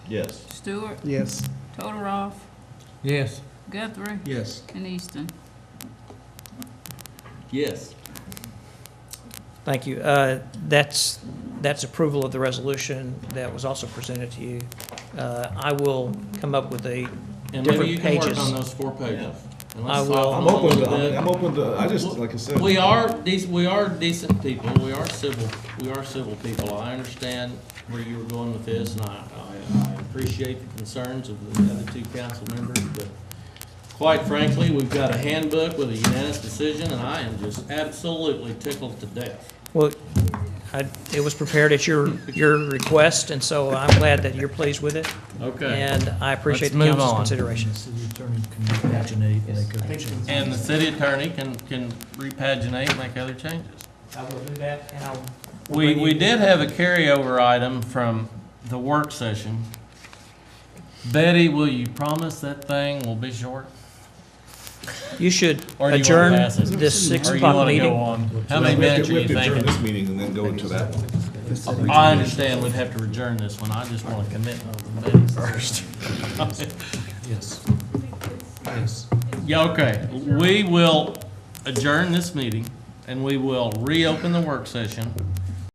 Yes. Stewart, Yes. Todoroff, Yes. Guthrie, Yes. and Easton. Yes. Thank you. Uh, That's, that's approval of the resolution that was also presented to you. Uh, I will come up with a And maybe you different can work pages. on those four pages. And let's I will. talk I'm a little open to, I bit. mean, I'm open to, I just, like I said. We are dec we are decent people, we are civil, we are civil people. I understand where you were going with this, and I, I, I appreciate the concerns of the other two council members, but quite frankly, we've got a handbook with a unanimous decision, and I am just absolutely tickled to death. Well, I- it was prepared at your, your request, and so I'm glad that you're pleased with it, Okay. and I Let's appreciate the move council's on. consideration. City attorney can paginate, make a And the city attorney can, can repaginate, make other changes. I will do that, and I'll. We, we did have a carryover item from the work session. Betty, will you promise that thing will be short? You should Or do you wanna adjourn pass it? this six Or you o'clock wanna go meeting. on? How many We have to- minutes are you We have to adjourn thinking? this meeting and then go into that one. I understand we'd have to adjourn this one, I just wanna commit on the minutes first. Yes. Yes. Yeah, okay, we will adjourn this meeting, and we will reopen the work session